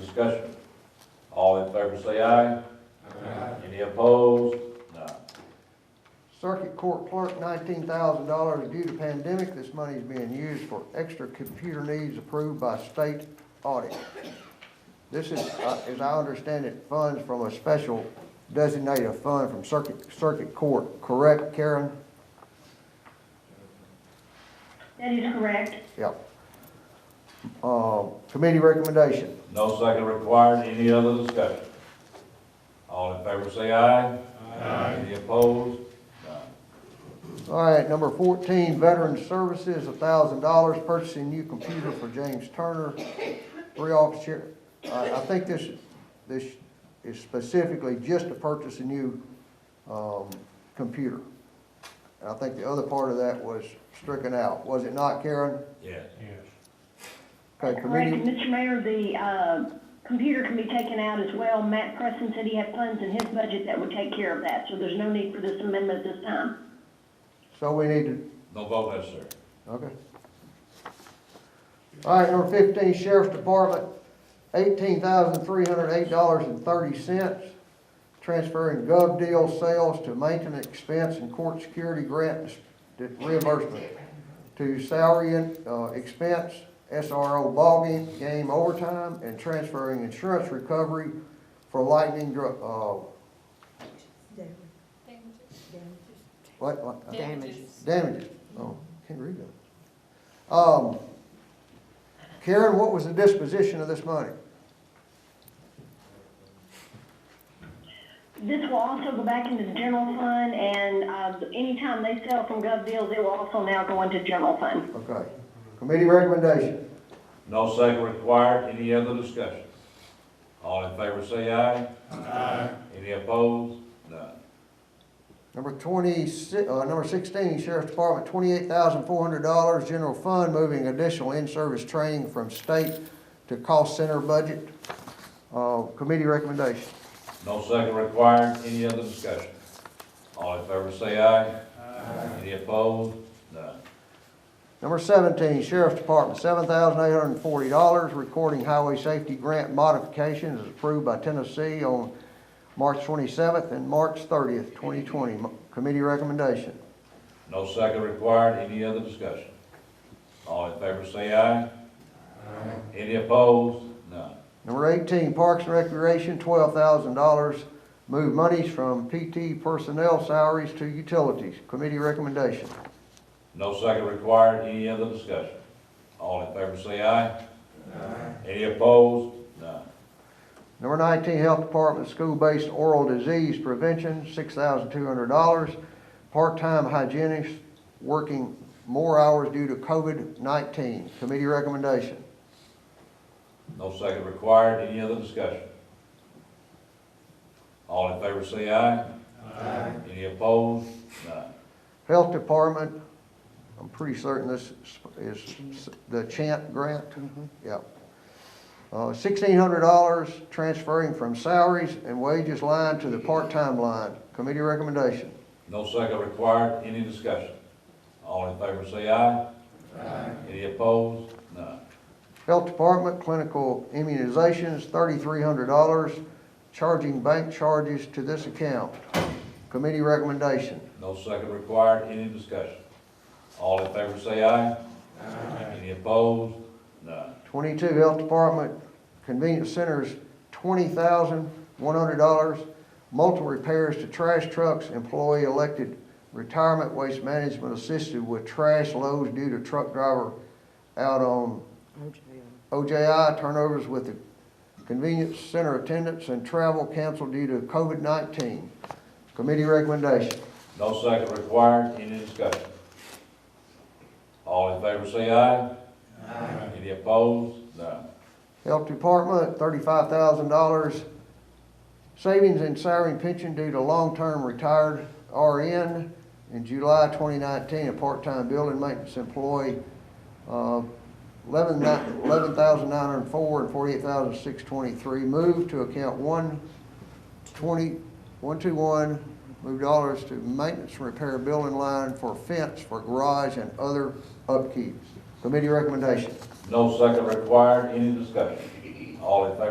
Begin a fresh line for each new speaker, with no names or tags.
discussion? All in favor say aye.
Aye.
Any opposed? None.
Circuit Court Clerk, nineteen thousand dollars due to pandemic. This money is being used for extra computer needs approved by state audit. This is, uh, as I understand it, funds from a special designated fund from Circuit, Circuit Court, correct, Karen?
That is correct.
Yep. Uh, committee recommendation.
No second required, any other discussion? All in favor say aye. Any opposed? None.
All right, number fourteen, Veteran Services, thousand dollars, purchasing new computer for James Turner. Three officer, I, I think this, this is specifically just to purchase a new, um, computer. And I think the other part of that was stricken out, was it not, Karen?
Yes.
Yes.
Okay,
Correct,
committee,
Mr. Mayor, the, uh, computer can be taken out as well. Matt Preston said he had funds in his budget that would take care of that, so there's no need for this amendment this time.
so we need to,
No vote necessary.
okay. All right, number fifteen, Sheriff's Department, eighteen thousand three hundred eight dollars and thirty cents. Transferring gov deal sales to maintenance expense and court security grant dis- reimbursement to salary and, uh, expense, SRO ballgame game overtime, and transferring insurance recovery for lightning dr- uh, what, what?
Damages.
Damages, oh, can't read that. Um, Karen, what was the disposition of this money?
This will also go back into the general fund, and, uh, anytime they sell from gov deals, it will also now go into general fund.
Okay, committee recommendation,
No second required, any other discussion? All in favor say aye. Aye. Any opposed? None.
number twenty-six, uh, number sixteen, Sheriff's Department, twenty-eight thousand four hundred dollars, general fund, moving additional in-service training from state to cost center budget. Uh, committee recommendation,
No second required, any other discussion? All in favor say aye. Aye. Any opposed? None.
number seventeen, Sheriff's Department, seven thousand eight hundred and forty dollars, recording highway safety grant modifications as approved by Tennessee on March twenty-seventh and March thirtieth, twenty twenty, committee recommendation.
No second required, any other discussion? All in favor say aye. Aye. Any opposed? None.
Number eighteen, Parks and Recreation, twelve thousand dollars. Move monies from PT personnel salaries to utilities. Committee recommendation.
No second required, any other discussion? All in favor say aye. Aye. Any opposed? None.
Number nineteen, Health Department, school-based oral disease prevention, six thousand two hundred dollars. Part-time hygienist working more hours due to COVID-nineteen. Committee recommendation.
No second required, any other discussion? All in favor say aye. Aye. Any opposed? None.
Health Department, I'm pretty certain this is the Chant grant. Yep. Uh, sixteen hundred dollars transferring from salaries and wages line to the part-time line. Committee recommendation.
No second required, any discussion? All in favor say aye. Aye. Any opposed? None.
Health Department clinical immunizations, thirty-three hundred dollars, charging bank charges to this account. Committee recommendation.
No second required, any discussion? All in favor say aye. Aye. Any opposed? None.
Twenty-two, Health Department, Convenience Centers, twenty thousand, one hundred dollars. Multiple repairs to trash trucks, employee elected retirement waste management assisted with trash loads due to truck driver out on OJI turnovers with the convenience center attendants and travel canceled due to COVID-19. Committee recommendation.
No second required, any discussion? All in favor say aye. Aye. Any opposed? None.
Health Department, thirty-five thousand dollars. Savings in salary and pension due to long-term retired RN in July twenty nineteen, a part-time building maintenance employee, uh, eleven thousand nine hundred and four and forty-eight thousand six twenty-three, moved to account one twenty, one two one, move dollars to maintenance and repair building line for fence, for garage and other upkeep. Committee recommendation.
No second required, any discussion? All in favor